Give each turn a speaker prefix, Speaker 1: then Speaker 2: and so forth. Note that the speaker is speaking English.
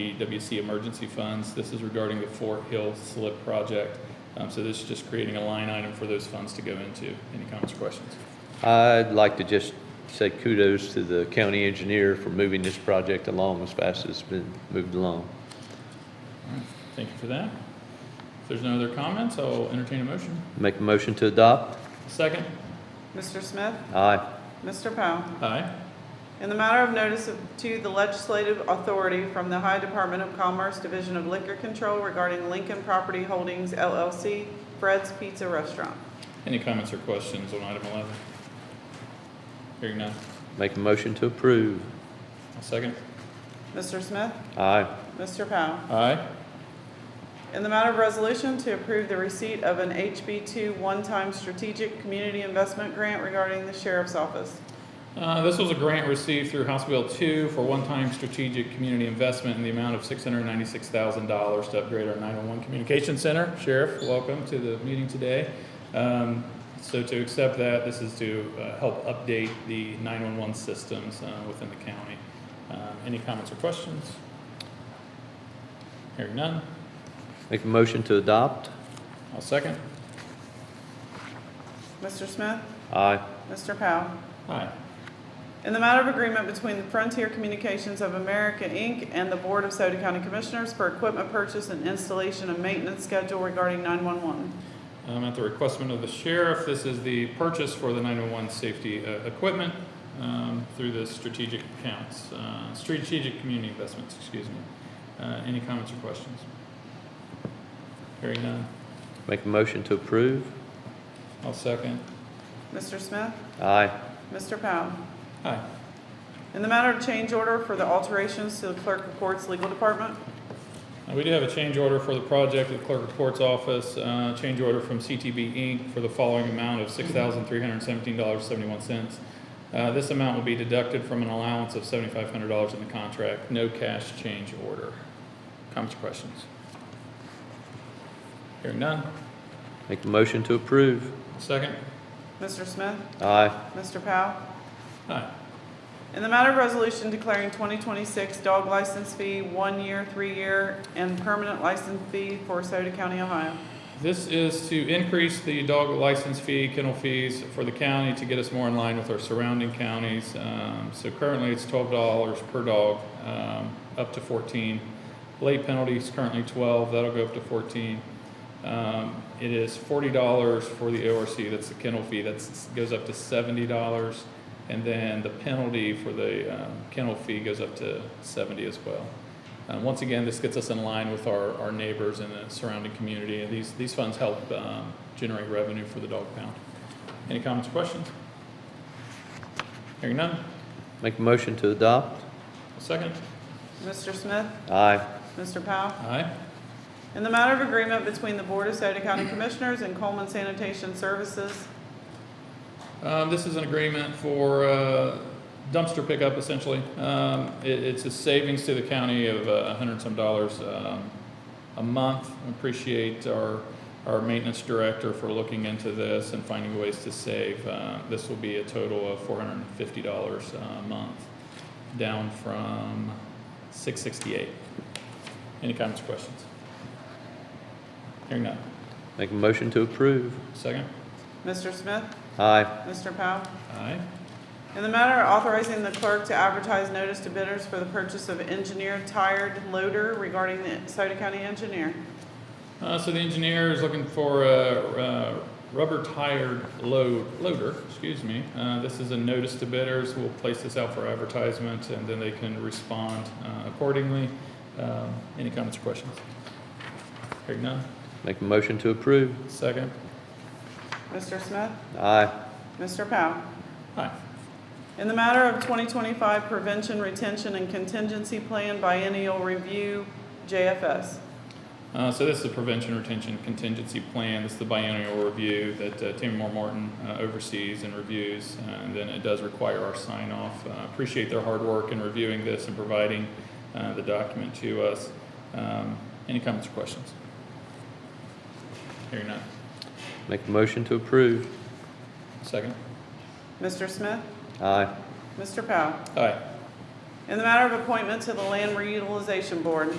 Speaker 1: OPWC emergency funds. This is regarding the Fort Hill slip project. Um, So this is just creating a line item for those funds to go into. Any comments or questions?
Speaker 2: I'd like to just say kudos to the county engineer for moving this project along as fast as it's been moved along.
Speaker 1: Thank you for that. If there's no other comments, I'll entertain a motion.
Speaker 2: Make a motion to adopt?
Speaker 1: Second?
Speaker 3: Mr. Smith?
Speaker 2: Aye.
Speaker 3: Mr. Powell?
Speaker 1: Aye.
Speaker 3: In the matter of notice of- to the legislative authority from the High Department of Commerce, Division of Liquor Control regarding Lincoln Property Holdings LLC, Fred's Pizza Restaurant.
Speaker 1: Any comments or questions on item 11? Hearing none.
Speaker 2: Make a motion to approve?
Speaker 1: I'll Second?
Speaker 3: Mr. Smith?
Speaker 2: Aye.
Speaker 3: Mr. Powell?
Speaker 1: Aye.
Speaker 3: In the matter of resolution to approve the receipt of an HB2 one-time strategic community investment grant regarding the sheriff's office.
Speaker 1: Uh, This was a grant received through House Bill 2 for one-time strategic community investment in the amount of $696,000 to upgrade our 911 communication center. Sheriff, welcome to the meeting today. Um, So to accept that, this is to uh, help update the 911 systems uh, within the county. Um, Any comments or questions? Hearing none,
Speaker 2: Make a motion to adopt?
Speaker 1: I'll second.
Speaker 3: Mr. Smith?
Speaker 2: Aye.
Speaker 3: Mr. Powell?
Speaker 1: Aye.
Speaker 3: In the matter of agreement between the Frontier Communications of America, Inc. and the Board of Sauter County Commissioners for equipment purchase and installation and maintenance schedule regarding 911.
Speaker 1: Um, At the requestment of the sheriff, this is the purchase for the 901 safety uh, equipment um, through the strategic accounts, uh, strategic community investments, excuse me. Uh, Any comments or questions? Hearing none,
Speaker 2: Make a motion to approve?
Speaker 1: I'll second.
Speaker 3: Mr. Smith?
Speaker 2: Aye.
Speaker 3: Mr. Powell?
Speaker 1: Aye.
Speaker 3: In the matter of change order for the alterations to the Clerk of Courts Legal Department.
Speaker 1: Uh, We do have a change order for the project at Clerk of Court's office, uh, change order from CTB Inc. for the following amount of $6,317.71. Uh, This amount will be deducted from an allowance of $7,500 in the contract, no cash change order. Comments or questions? Hearing none,
Speaker 2: Make a motion to approve?
Speaker 1: second?
Speaker 3: Mr. Smith?
Speaker 2: Aye.
Speaker 3: Mr. Powell?
Speaker 1: Aye.
Speaker 3: In the matter of resolution declaring 2026 dog license fee, one-year, three-year, and permanent license fee for Sauter County, Ohio.
Speaker 1: This is to increase the dog license fee, kennel fees for the county to get us more in line with our surrounding counties. Um, So currently, it's twelve dollars per dog, um, up to fourteen. Late penalty is currently twelve, that'll go up to fourteen. Um, It is forty dollars for the ORC, that's the kennel fee, that's, goes up to seventy dollars. And then the penalty for the um, kennel fee goes up to seventy as well. Uh, Once again, this gets us in line with our, our neighbors in the surrounding community, and these, these funds help um, generate revenue for the dog pound. Any comments or questions? Hearing none,
Speaker 2: Make a motion to adopt?
Speaker 1: A second?
Speaker 3: Mr. Smith?
Speaker 2: Aye.
Speaker 3: Mr. Powell?
Speaker 1: Aye.
Speaker 3: In the matter of agreement between the Board of Sauter County Commissioners and Coleman Sanitation Services.
Speaker 1: Um, This is an agreement for uh, dumpster pickup essentially. Um, it- It's a savings to the county of uh, a hundred and some dollars um, a month. We Appreciate our, our maintenance director for looking into this and finding ways to save. Uh, This will be a total of four hundred and fifty dollars uh, a month, down from six sixty-eight. Any comments or questions? Hearing none.
Speaker 2: Make a motion to approve?
Speaker 1: Second?
Speaker 3: Mr. Smith?
Speaker 2: Aye.
Speaker 3: Mr. Powell?
Speaker 1: Aye.
Speaker 3: In the matter of authorizing the clerk to advertise notice to bidders for the purchase of engineered tired loader regarding the Sauter County engineer.
Speaker 1: Uh, so the engineer is looking for a, a rubber tired load, loader, excuse me. Uh, this is a notice to bidders. We'll place this out for advertisement and then they can respond uh, accordingly. Um, any comments or questions? Hearing none.
Speaker 2: Make a motion to approve?
Speaker 1: Second.
Speaker 3: Mr. Smith?
Speaker 2: Aye.
Speaker 3: Mr. Powell?
Speaker 1: Aye.
Speaker 3: In the matter of 2025 prevention, retention, and contingency plan biennial review, JFS.
Speaker 1: Uh, so this is the prevention retention contingency plan. This is the biennial review that uh, Tammy Moore Martin uh, oversees and reviews, uh, and then it does require our sign off. Uh, appreciate their hard work in reviewing this and providing uh, the document to us. Um, any comments or questions? Hearing none.
Speaker 2: Make a motion to approve?
Speaker 1: Second.
Speaker 3: Mr. Smith?
Speaker 2: Aye.
Speaker 3: Mr. Powell?
Speaker 1: Aye.
Speaker 3: In the matter of appointment to the Land Reutilization Board,